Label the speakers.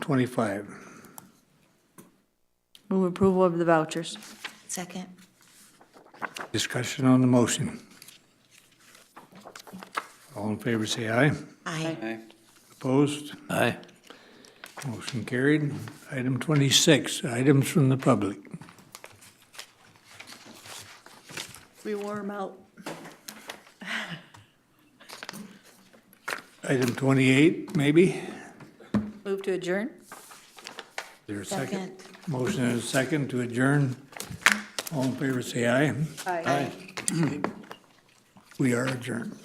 Speaker 1: 25.
Speaker 2: Move approval of the vouchers.
Speaker 3: Second.
Speaker 1: Discussion on the motion. All in favor, say aye.
Speaker 3: Aye.
Speaker 1: Opposed?
Speaker 4: Aye.
Speaker 1: Motion carried. Item 26, items from the public.
Speaker 2: We wore them out.
Speaker 1: Item 28, maybe? Is
Speaker 2: Move to adjourn?
Speaker 1: there a second? Motion and a second to adjourn. All in favor, say aye.
Speaker 2: Aye.
Speaker 1: We are adjourned.